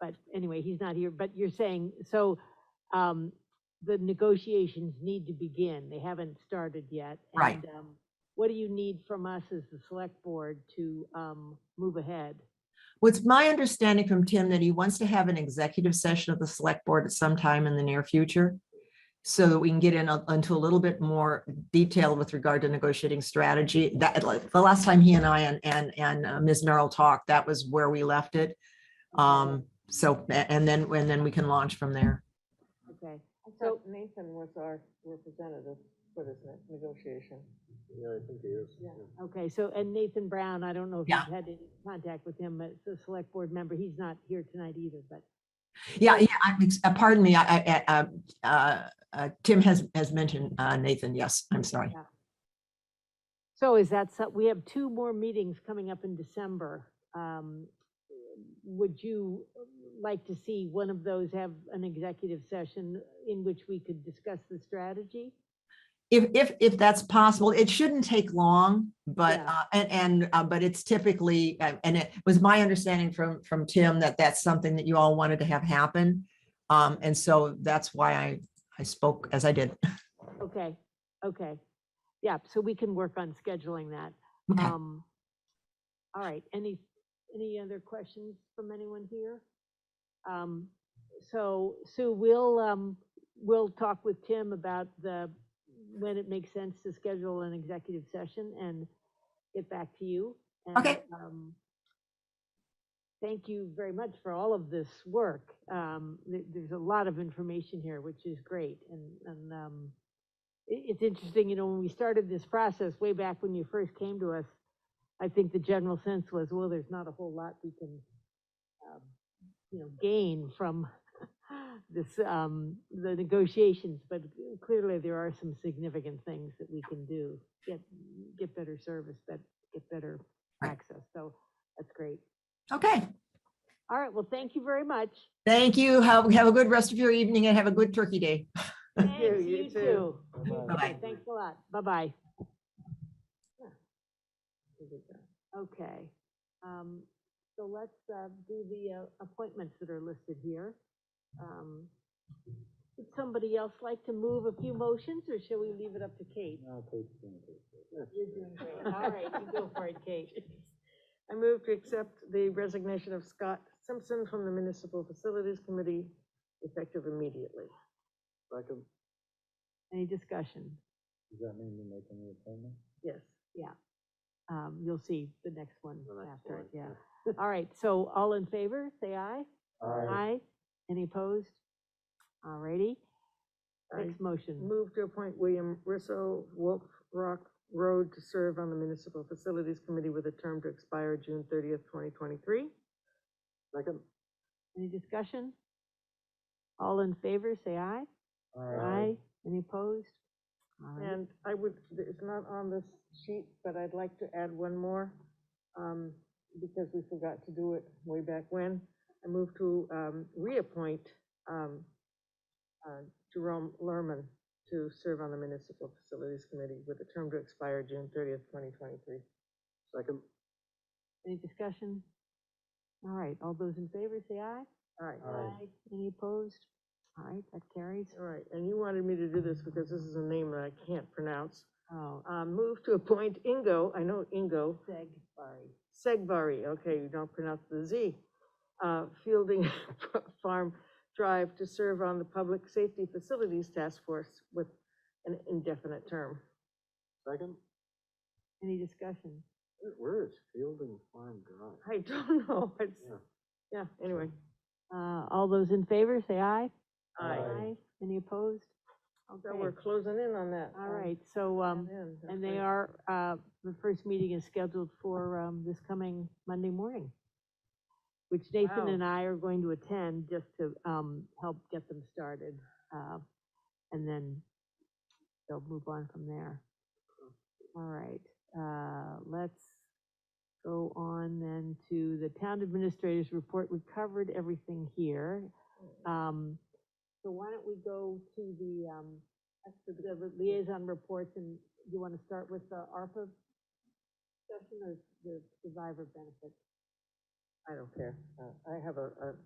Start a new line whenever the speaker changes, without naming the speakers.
but anyway, he's not here, but you're saying, so, um, the negotiations need to begin, they haven't started yet.
Right.
and, um, What do you need from us as the select board to, um, move ahead?
What's my understanding from Tim that he wants to have an executive session of the select board at some time in the near future. So that we can get in a- into a little bit more detail with regard to negotiating strategy. That, like, the last time he and I and, and, and uh, Ms. Merrill talked, that was where we left it. Um, so, a- and then, and then we can launch from there.
Okay,
I
So-
thought Nathan was our representative for this ne- negotiation.
Yeah, I think he is.
Yeah.
okay, so, and Nathan Brown, I don't know if
Yeah.
you've had any contact with him as a select board member, he's not here tonight either, but
Yeah, yeah, I'm, ex- uh, pardon me, I, I, I, uh, uh, uh, Tim has, has mentioned, uh, Nathan, yes, I'm sorry.
So is that, so- we have two more meetings coming up in December. Um, Would you like to see one of those have an executive session in which we could discuss the strategy?
If, if, if that's possible, it shouldn't take long, but,
Yeah.
uh, and, and, uh, but it's typically, uh, and it was my understanding from, from Tim that that's something that you all wanted to have happen. Um, and so that's why I, I spoke as I did.
Okay, okay. Yeah, so we can work on scheduling that.
Okay.
Um, All right, any, any other questions from anyone here? Um, So Sue, we'll, um, we'll talk with Tim about the, when it makes sense to schedule an executive session and get back to you. And,
Okay.
um, Thank you very much for all of this work. Um, there- There's a lot of information here, which is great, and, and um, it, it's interesting, you know, when we started this process way back when you first came to us, I think the general sense was, well, there's not a whole lot we can, um, you know, gain from this, um, the negotiations, but clearly there are some significant things that we can do. Get, get better service, but get better
Right.
access, so that's great.
Okay,
All right, well, thank you very much.
thank you. Have, have a good rest of your evening and have a good turkey day.
Thanks,
you, you
you
too.
too.
Bye-bye.
Okay, Thanks a lot, bye-bye. Okay, um, so let's, uh, do the uh, appointments that are listed here. Um, Would somebody else like to move a few motions, or shall we leave it up to Kate?
You're doing great. All right, you go for it, Kate. I move to accept the resignation of Scott Simpson from the Municipal Facilities Committee effective immediately.
Second,
Any discussion?
um, does that mean you're making the appointment?
Yes.
Um, you'll see the next one
The next
after, it,
one,
yeah. All right, so all in favor, say aye. Aye. Any opposed? All righty,
I
next motion.
move to appoint William Russo, Wolf Rock Road, to serve on the Municipal Facilities Committee with a term to expire June thirtieth, twenty twenty-three.
Second?
Any discussion? All in favor, say aye. Any opposed? All right.
And I would, it's not on this sheet, but I'd like to add one more, um, because we forgot to do it way back when. I move to, um, reappoint, um, uh, Jerome Lerman to serve on the Municipal Facilities Committee with a term to expire June thirtieth, twenty twenty-three.
Second?
Any discussion? All right, all those in favor, say aye.
All right,
Aye.
Any opposed? All right, that carries.
all right, and you wanted me to do this because this is a name that I can't pronounce.
Oh,
Um, move to appoint Ingo, I know Ingo,
seg, sorry.
Segvari, okay, you don't pronounce the Z, uh, Fielding Farm Drive to serve on the Public Safety Facilities Task Force with an indefinite term.
Second?
Any discussion?
Where- Where is Fielding Farm Drive?
I don't know, it's,
Yeah.
yeah, anyway.
Uh, all those in favor, say aye.
Aye.
Any opposed?
So we're
Okay,
closing in on that.
all right, so, um, and they are, uh, the first meeting is scheduled for, um, this coming Monday morning, which Nathan
Wow.
and I are going to attend just to, um, help get them started. Uh, and then they'll move on from there. All right, uh, let's go on then to the town administrator's report. We covered everything here. Um, so why don't we go to the, um, to the liaison reports and you want to start with the ARPA discussion or the survivor benefit?
I don't care, Uh, I have a, a